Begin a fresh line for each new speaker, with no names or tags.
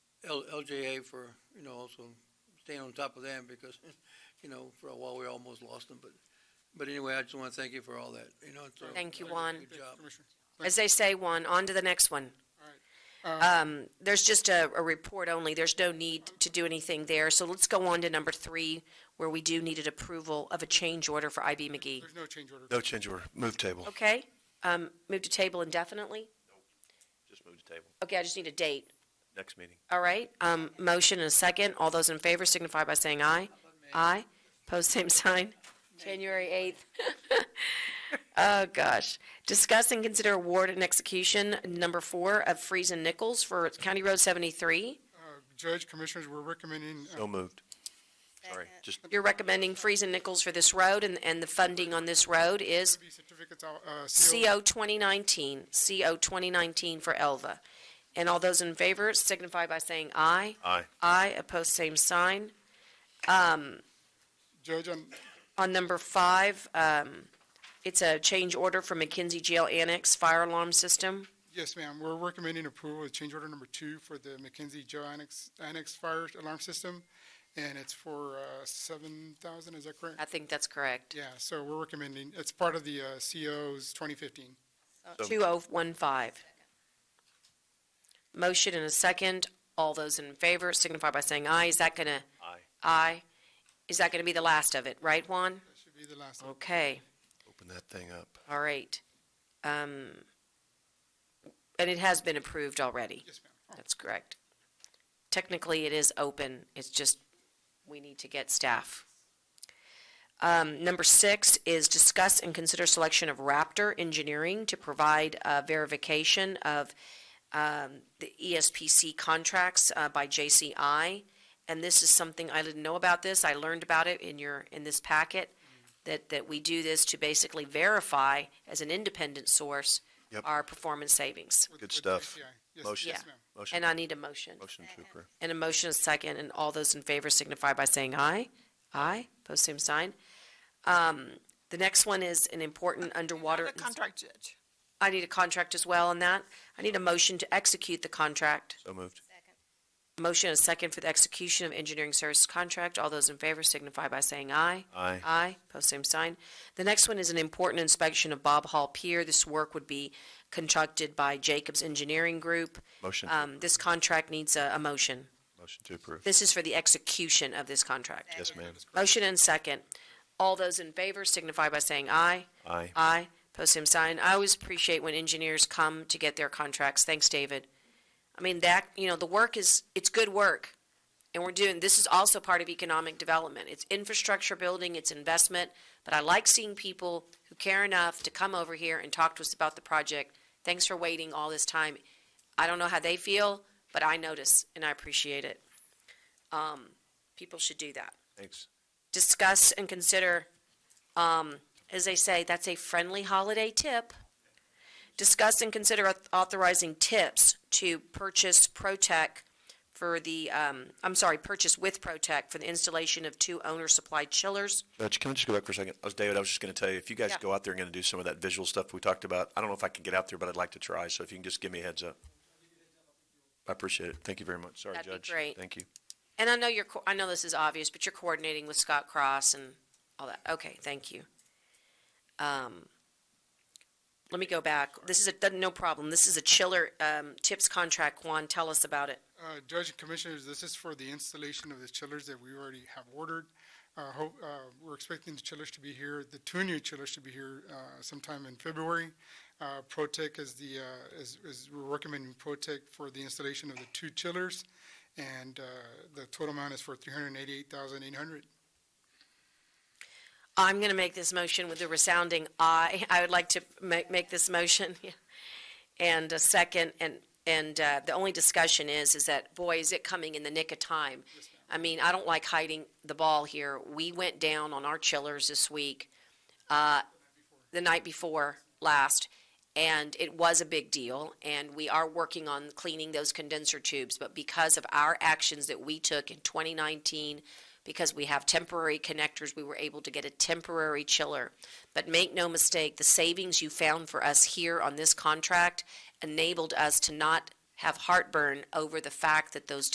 L- LJA for, you know, also staying on top of them because, you know, for a while we almost lost them, but, but anyway, I just want to thank you for all that, you know. it's uh, a-
Thank you, Juan.
Good job.
Commissioner.
As they say, Juan, on to the next one.
Uh,
Um, there's just a, a report only. There's no need to do anything there. So let's go on to number three, where we do needed approval of a change order for IB McGee.
There's no change order.
No change order. Move table.
Okay? Um, move to table indefinitely?
Just move to table.
Okay, I just need a date.
Next meeting.
All right, um, motion and a second. All those in favor signify by saying aye. Aye. Pose same sign. January 8th. Oh, gosh. Discuss and consider award and execution number four of Freeze and Nichols for County Road 73.
Uh, Judge, Commissioners, we're recommending, uh,
So moved. Sorry, just
You're recommending Freeze and Nichols for this road, and, and the funding on this road is
be certificates, out, uh, CO.
CO 2019, CO 2019 for Elva. And all those in favor signify by saying aye.
aye.
Aye, opposed, same sign.
Judge, um, on
On number five, um, it's a change order for McKenzie Jail Annex Fire Alarm System.
Yes, ma'am. We're recommending approval of change order number two for the McKenzie Joe Annex, Annex Fire Alarm System. And it's for, uh, seven thousand, is that correct?
I think that's correct.
Yeah, so we're recommending, it's part of the, uh, COs twenty fifteen.
So-
2015. Motion and a second. All those in favor signify by saying aye. Is that gonna?
Aye.
Aye. Is that gonna be the last of it, right, Juan?
That should be the last. one.
Okay,
Open that thing up.
all right. Um, and it has been approved already.
Yes, ma'am.
That's correct. Technically, it is open, it's just, we need to get staff. Um, number six is discuss and consider selection of Raptor Engineering to provide, uh, verification of, um, the ESPC contracts, uh, by JCI. And this is something, I didn't know about this, I learned about it in your, in this packet, that, that we do this to basically verify as an independent source
Yep.
our performance savings.
With-
Good
with
stuff.
JCI. Yes,
Motion.
yes,
Yeah.
ma'am.
Motion,
And I need a motion.
motion to approve.
And a motion is second, and all those in favor signify by saying aye. Aye, post same sign. Um, the next one is an important underwater.
Another contract judge.
I need a contract as well on that. I need a motion to execute the contract.
So moved.
Motion is second for the execution of engineering service contract. All those in favor signify by saying aye.
Aye.
Aye, post same sign. The next one is an important inspection of Bob Hall Pier. This work would be conducted by Jacobs Engineering Group.
Motion,
Um, this contract needs a, a motion.
motion to approve.
This is for the execution of this contract.
Yes, ma'am.
Motion and second. All those in favor signify by saying aye.
Aye.
Aye. Post same sign. I always appreciate when engineers come to get their contracts. Thanks, David. I mean, that, you know, the work is, it's good work. And we're doing, this is also part of economic development. It's infrastructure building, it's investment. But I like seeing people who care enough to come over here and talk to us about the project. Thanks for waiting all this time. I don't know how they feel, but I notice and I appreciate it. Um, people should do that
Thanks.
discuss and consider, um, as they say, that's a friendly holiday tip. Discuss and consider auth- authorizing tips to purchase Protec for the, um, I'm sorry, purchase with Protec for the installation of two owner-supplied chillers.
Judge, can I just go back for a second? I was, David, I was just gonna tell you, if you guys
Yeah.
go out there and gonna do some of that visual stuff we talked about, I don't know if I can get out there, but I'd like to try, so if you can just give me a heads up. I appreciate it. Thank you very much. Sorry, Judge.
That'd be great.
Thank you.
And I know you're, co- I know this is obvious, but you're coordinating with Scott Cross and all that. Okay, thank you. Um, let me go back. This is a, no problem. This is a chiller, um, tips contract. Juan, tell us about it.
Uh, Judge and Commissioners, this is for the installation of the chillers that we already have ordered. Uh, hope, uh, we're expecting the chillers to be here, the two new chillers to be here, uh, sometime in February. Uh, Protec is the, uh, is, is, we're recommending Protec for the installation of the two chillers. And, uh, the total amount is for three hundred and eighty-eight thousand eight hundred.
I'm going to make this motion with a resounding aye. I would like to make, make this motion. yeah. And a second, and, and uh, the only discussion is, is that, boy, is it coming in the nick of time. I mean, I don't like hiding the ball here. We went down on our chillers this week, uh, the night before last, and it was a big deal. And we are working on cleaning those condenser tubes, but because of our actions that we took in 2019, because we have temporary connectors, we were able to get a temporary chiller. But make no mistake, the savings you found for us here on this contract enabled us to not have heartburn over the fact that those